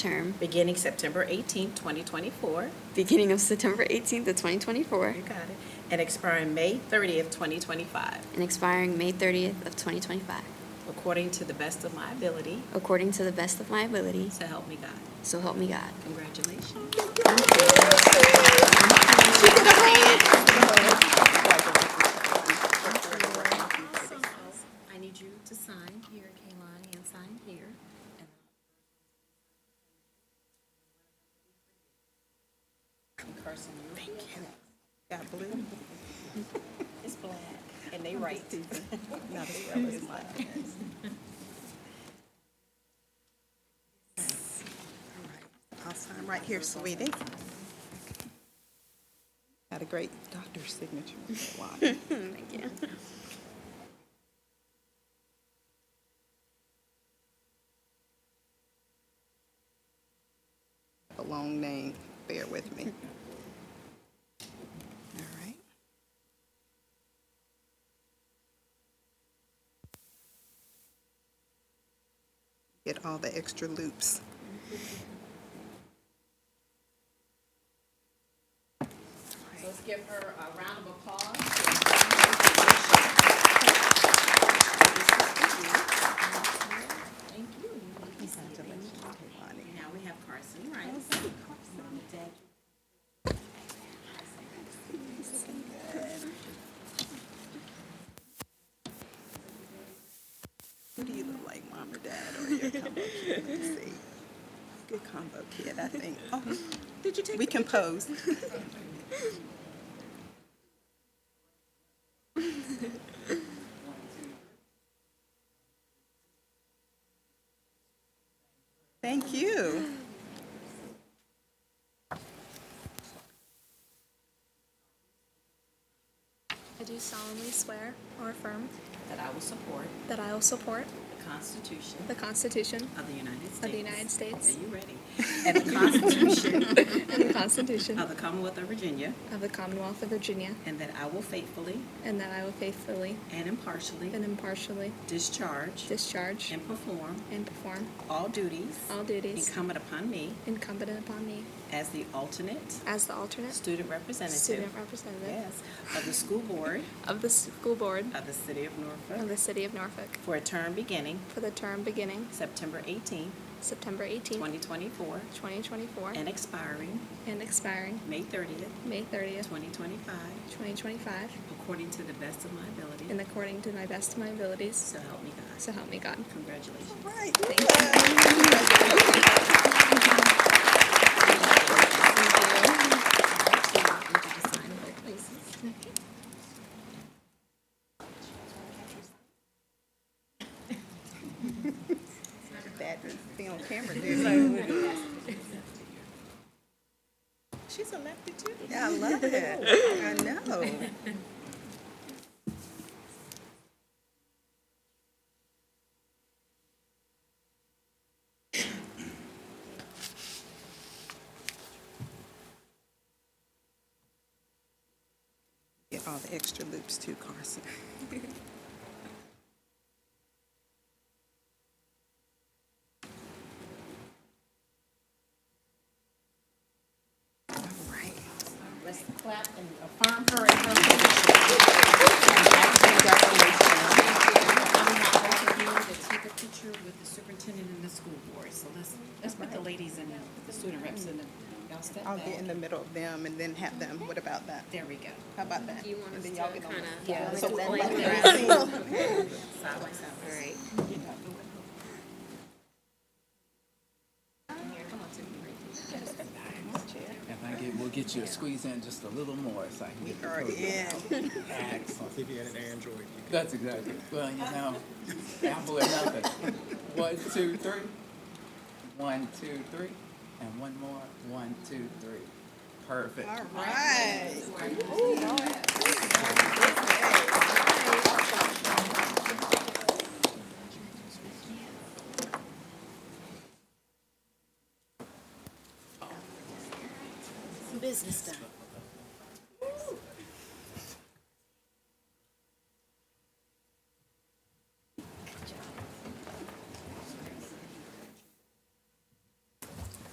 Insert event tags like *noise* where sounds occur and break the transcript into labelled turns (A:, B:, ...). A: term
B: beginning September 18, 2024.
A: beginning of September 18th of 2024
B: You got it. And expiring May 30th, 2025,
A: and expiring May 30th of 2025,
B: according to the best of my ability,
A: according to the best of my ability,
B: so help me God.
A: so help me God.
B: Congratulations.
A: I need you to sign here, Kaylani, and sign here.
B: Carson, you. Thank you. Got blue? *laughs* It's black. And they right. *laughs* Not as well as mine.
C: I'll sign right here, sweetie. Got a great
B: *laughs*
C: doctor's signature. Wow.
A: Thank you.
C: A long name, bear with me. All right. Get all the extra loops.
B: Let's give her a round of applause. Thank you.
C: Congratulations, Kehlani.
B: Now we have Carson Rice. Mom and Dad.
C: Who do you look like, mom or dad, or your combo kid? Let's see. Good combo kid, I think. Oh,
B: Did you take
C: we can pose. Thank you.
D: I do solemnly swear or affirm
B: That I will support
D: that I will support
B: the Constitution
D: the Constitution
B: of the United States.
D: of the United States
B: Are you ready? And the Constitution
D: and the
B: *laughs*
D: Constitution
B: of the Commonwealth of Virginia.
D: of the Commonwealth of Virginia,
B: And that I will faithfully
D: and that I will faithfully
B: and impartially
D: and impartially
B: discharge
D: discharge
B: and perform
D: and perform
B: all duties
D: all duties
B: incumbent upon me
D: incumbent upon me
B: as the alternate
D: as the alternate
B: student representative
D: student representative
B: yes, of the school board
D: of the school board
B: of the city of
D: of
B: Norfolk
D: the City of Norfolk
B: for a term beginning
D: for the term beginning
B: September 18,
D: September 18,
B: 2024
D: 2024,
B: and expiring
D: and expiring
B: May 30th,
D: May 30th,
B: 2025
D: 2025,
B: according to the best of my ability.
D: and according to my best of my abilities,
B: so help me God.
D: so help me God.
B: Congratulations.
C: Right. That thing on camera, dude.
B: She's elected too.
C: Yeah, I love it. I know. Get all the extra loops too, Carson. All right.
B: Let's clap and affirm her in her position. Congratulations. To take a picture with the superintendent and the school board. So let's, let's put the ladies and the- the student reps in the, y'all step
C: I'll
B: back.
C: get in the middle of them and then have them. What about that?
B: There we go.
C: How about that?
A: You want
C: And
A: us to
C: then
A: kind
C: y'all get on
A: of.
B: Yeah.
C: So we'll
A: like
C: walk
A: that.
C: around.
B: Side by side.
A: All right.
E: If I get, we'll get you to squeeze in just a little more so I can
C: We
E: get the
C: are
E: program.
C: in.
E: Excellent.
F: If you had an Android, you could
E: That's exactly, well, you know, apple or nothing. One, two, three. One, two, three. And one more, one, two, three. Perfect.
C: All right.
B: Business done.